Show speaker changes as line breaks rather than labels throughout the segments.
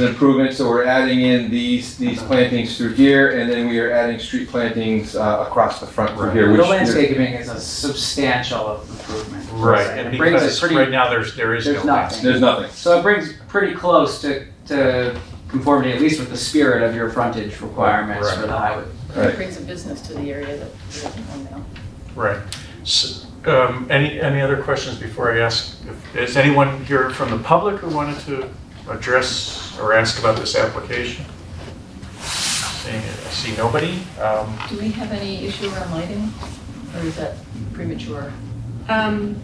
an improvement, so we're adding in these, these plantings through here, and then we are adding street plantings uh, across the front through here,
The
which.
landscaping is a substantial improvement.
Right, and
It brings it
because right
pretty,
now, there's, there is no
there's nothing.
landscape.
There's nothing.
so it brings pretty close to, to conformity, at least with the spirit of your frontage requirements for the highway.
Right.
It brings a business to the area that doesn't come now.
Right. S- um, Any, any other questions before I ask? if- Is anyone here from the public who wanted to address or ask about this application? Seeing- I see nobody. Um,
Do we have any issue around lighting, or is that premature?
Um,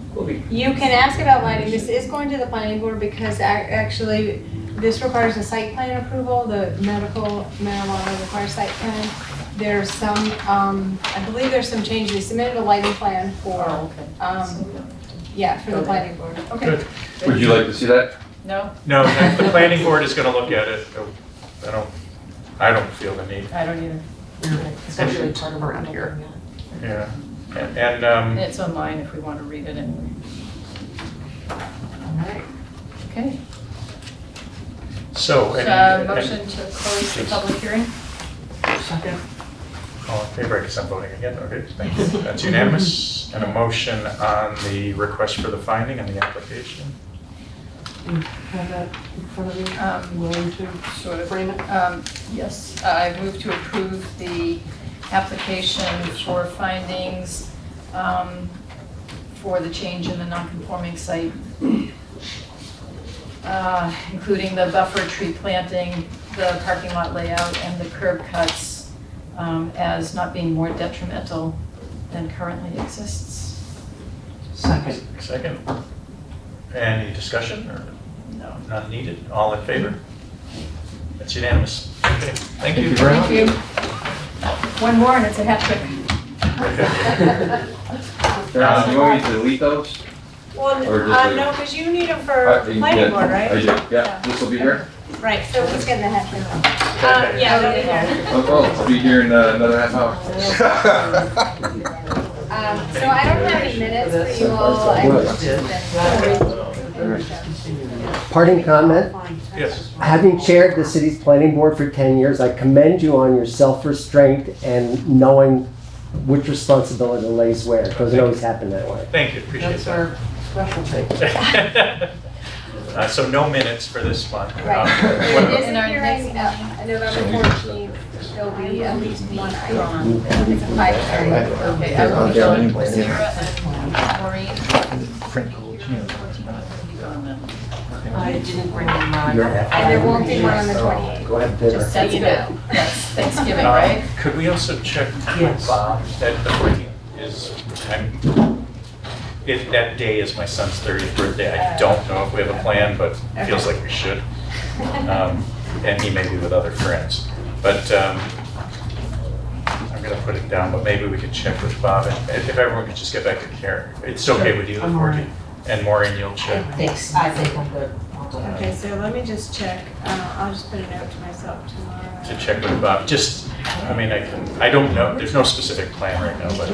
you can ask about lighting, this is going to the planning board because ac- actually, this requires a site plan approval, the medical marijuana requires site plan. There's some, um, I believe there's some changes, they submitted a lighting plan for,
okay. So
um,
we don't-
yeah, for the planning board.
Good.
Would you like to see that?
No,
No, if the planning board is going to look at it. no, I don't, I don't feel the need,
I don't either.
Especially part of around here.
yeah. And- And, um,
And it's online if we want to read it anyway. Okay,
so.
so
any-
uh,
any-
motion to close the public hearing?
Second.
All in favor, I guess I'm voting again, okay, thank you. That's unanimous. And a motion on the request for the finding on the application.
Have that in front of you.
Um,
Willing to
Sort of.
frame it?
Um, Yes, I move to approve the application for findings um, for the change in the non-conforming site, uh, including the buffer tree planting, the parking lot layout, and the curb cuts um, as not being more detrimental than currently exists.
Second.
Second. Any discussion or
No.
none needed? All in favor? That's unanimous. Okay, thank you.
Thank you. One more and it's a hat trick. Oh,
Don, Uh, you want me to delete those? Or
Well,
just uh, like- no,
no, because you need them
Uh,
for
yeah,
planning board,
I
right?
do, yeah, this will be here.
Right, so it's getting the heck out
Okay.
yeah, they'll be here.
Oh, oh, it'll be here in uh, another half hour.
Um, so I don't have any minutes for you all. I just
Parting comment,
Yes.
having chaired the city's planning board for 10 years, I commend you on your self-restraint and knowing which responsibility lays where. It Doesn't always happen that way.
Thank you, appreciate
That's
that.
our specialty.
Uh, So no minutes for this one.
Right.
Um,
There
what-
is a hearing, uh, November fourteenth, there'll be at least one item. It's a five thirty.
Okay, I will be
Okay, I'm
going
going in.
Sarah and Maureen.
I didn't bring mine.
You're-
And there won't be one on the twenty-eighth.
Go ahead and dinner.
Just that's
you
good.
know.
That's Thanksgiving,
um,
right?
Could we also check with
Yes.
Bob that the 14th is, I'm, it, that day is my son's 30th birthday. I don't know if we have a plan, but it feels like we should. Um, And he may be with other friends. But um, I'm going to put it down, but maybe we could check with Bob. and If if everyone could just get back to Karen. It's okay with you, the
I'm all right.
14th? And Maureen, you'll check.
Thanks, I think I'm good.
Okay, so let me just check, uh, I'll just put a note to myself tomorrow.
to check with Bob, just, I mean, I can, I don't know, there's no specific plan right now, but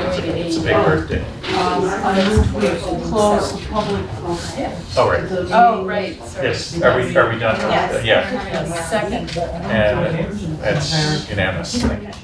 it's a, it's a big
Oh.
birthday.
Um, I move we close the public. uh,
Oh, right,
the
Oh,
meeting.
right, sorry.
yes, are we, are we done?
Yes.
Yeah,
Yes, Second.
Oh.
and that's unanimous, thank you.